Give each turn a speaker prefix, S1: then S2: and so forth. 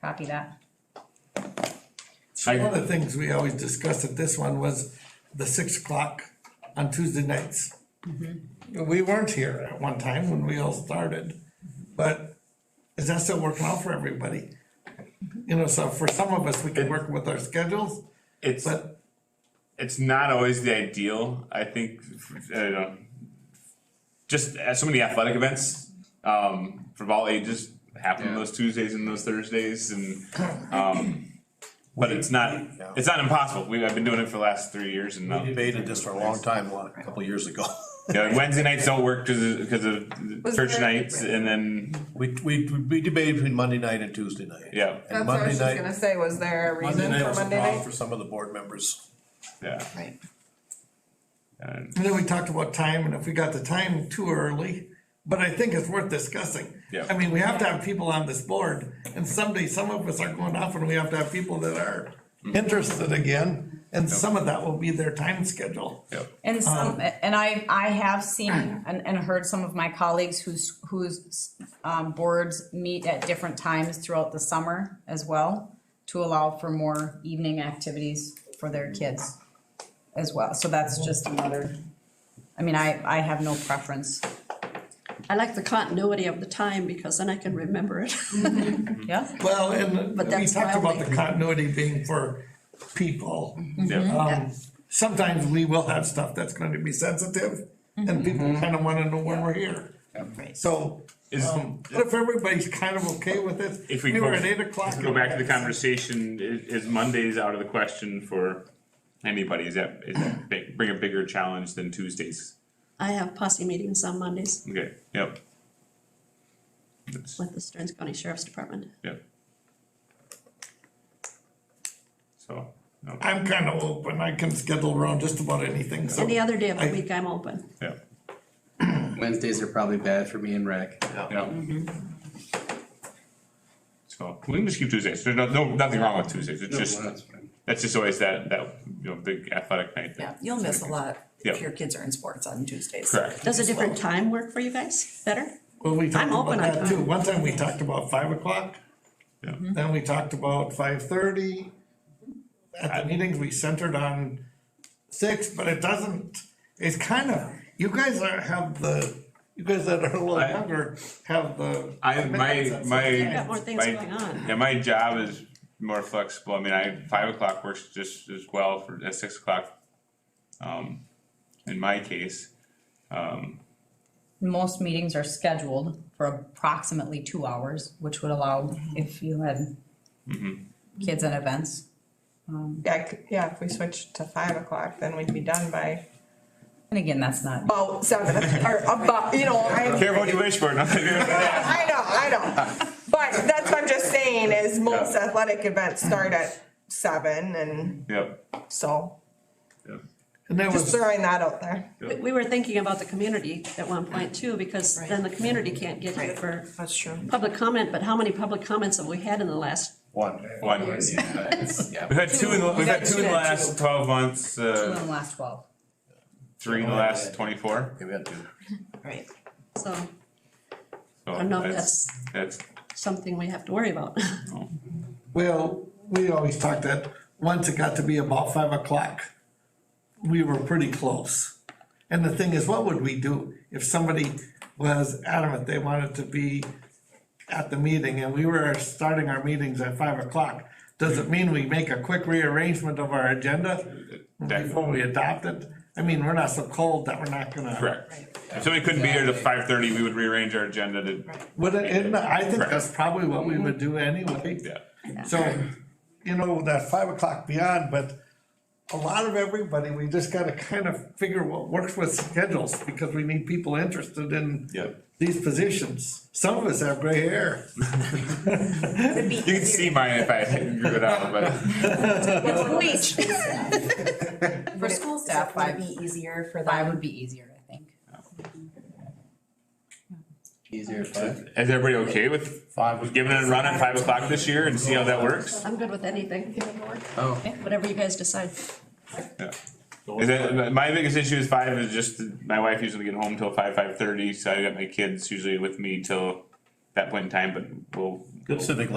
S1: Copy that.
S2: I-
S3: One of the things we always discussed at this one was the six o'clock on Tuesday nights. We weren't here at one time when we all started, but is that still working out for everybody? You know, so for some of us, we can work with our schedules,
S2: It's
S3: but
S2: it's not always the ideal. I think I don't know, just at so many athletic events um, for all ages happen
S4: Yeah.
S2: those Tuesdays and those Thursdays, and um, but it's not it's not impossible. We I've been doing it for the last three years, and um,
S4: debated this for a long time, a lot- a couple years ago.
S2: yeah, Wednesday nights don't work because of,
S5: Was
S2: church
S5: there-
S2: nights, and then
S4: We, we, we debated between Monday night and Tuesday night.
S2: yeah,
S5: That's
S4: And
S5: what I
S4: Monday
S5: was just gonna
S4: night,
S5: say, was there a
S4: Monday
S5: reason
S4: night
S5: for
S4: was a
S5: Monday
S4: problem
S5: night?
S4: for some of the board members.
S2: yeah.
S5: Right.
S2: And,
S3: and then we talked about time and if we got the time too early, but I think it's worth discussing.
S2: Yeah.
S3: I mean, we have to have people on this board and someday some of us are going off and we have to have people that are interested again. And some of that will be their time schedule.
S2: yeah.
S1: And
S4: Um,
S1: some, and I, I have seen and, and heard some of my colleagues whose, whose, um, boards meet at different times throughout the summer as well to allow for more evening activities for their kids as well. So that's just another, I mean, I, I have no preference.
S2: Mm-hmm.
S6: I like the continuity of the time because then I can remember it.
S1: Yeah?
S3: Well, and
S6: But
S3: we
S6: that's
S3: talked about
S6: wildly-
S3: the continuity being for people.
S6: Mm-hmm.
S2: yeah.
S3: Um, sometimes we will have stuff that's going to be sensitive and people kind of want to know when we're here. So,
S2: Is-
S3: um, but if everybody's kind of okay with it,
S2: If we
S3: we were
S2: go-
S3: at eight o'clock.
S2: Go back to the conversation, i- is Mondays out of the question for anybody, is that, is that big, bring a bigger challenge than Tuesdays?
S6: I have posse meetings on Mondays
S2: Okay, yep,
S6: with the Stearns County Sheriff's Department.
S2: yep. So, no,
S3: I'm kind of open. I can schedule around just about anything, so.
S6: Any other day of the
S3: I-
S6: week, I'm open.
S2: yeah,
S7: Wednesdays are probably bad for me and rec.
S2: yeah. So, we can just keep Tuesdays, there's no, no, nothing wrong with Tuesdays, it's
S7: No,
S2: just,
S7: that's fine.
S2: that's just always that, that, you know, big athletic night. that-
S5: Yeah, you'll miss a lot
S2: Yeah.
S5: if your kids are in sports on Tuesdays.
S2: Correct.
S6: Does a different time work for you guys better?
S3: Well, we talked
S6: I'm
S3: about
S6: open on
S3: that too.
S6: time. Mm-hmm.
S3: One time we talked about five o'clock.
S2: Yeah.
S3: Then we talked about five thirty. At the meetings, we centered on six, but it doesn't, it's kind of, you guys are, have the, you guys that are a little
S2: I-
S3: younger have the.
S2: I, my,
S3: commitments
S2: my.
S3: at
S6: got more things
S2: my-
S6: going on.
S2: Yeah, my job is more flexible, I mean, I, five o'clock works just as well for, at six o'clock. Um, in my case,
S1: Most meetings are scheduled for approximately two hours, which would allow if you had kids and events.
S5: Yeah, c- yeah, if we switched to five o'clock, then we'd be done by
S1: And again, that's not,
S5: about seven, or about, you know, I.
S2: careful what you wish for, nothing.
S5: I know, I know, but that's what I'm just saying is most
S2: Yeah.
S5: athletic events start at seven and
S2: Yep,
S5: so,
S2: yep,
S3: And that
S5: just
S3: was,
S5: throwing that out there.
S6: We- We were thinking about the community at one point too, because then the community can't get here for
S5: That's true.
S6: public comment, but how many public comments have we had in the last?
S4: One.
S2: one, we've
S7: Yeah,
S2: had two in, the- we've had two in the last twelve months,
S1: in the
S2: uh,
S1: last twelve.
S2: three in the last twenty-four.
S4: Maybe I do.
S5: Right.
S6: So
S2: So
S6: I don't know if
S2: That's,
S6: something we have to worry about.
S3: well, we always talked that, once it got to be about five o'clock, we were pretty close. And the thing is, what would we do if somebody was adamant they wanted to be at the meeting and we were starting our meetings at five o'clock? Does it mean we make a quick rearrangement of our agenda before we adopt it? I mean, we're not so cold that we're not gonna.
S2: correct. If somebody couldn't be here to five thirty, we would rearrange our agenda to,
S3: Would it, uh, and I think that's probably what we would do anyway.
S2: Yeah.
S3: So, you know, that five o'clock beyond, but a lot of everybody, we just gotta kind of figure what works with schedules, because we need people interested in
S2: Yep.
S3: these positions. Some of us have gray hair.
S2: you can see mine if I grew it out, but.
S1: For school staff,
S8: Would
S1: five,
S8: it be easier for
S1: five
S8: them?
S1: would be easier, I think.
S7: easier fun.
S2: Is everybody okay with five, with giving it a run at five o'clock this year and see how that works?
S6: I'm good with anything,
S7: Oh,
S6: whatever you guys decide.
S2: Yeah. Is that, my biggest issue is five is just, my wife usually get home till five, five thirty, so I got my kids usually with me till that point in time, but we'll
S4: Good civic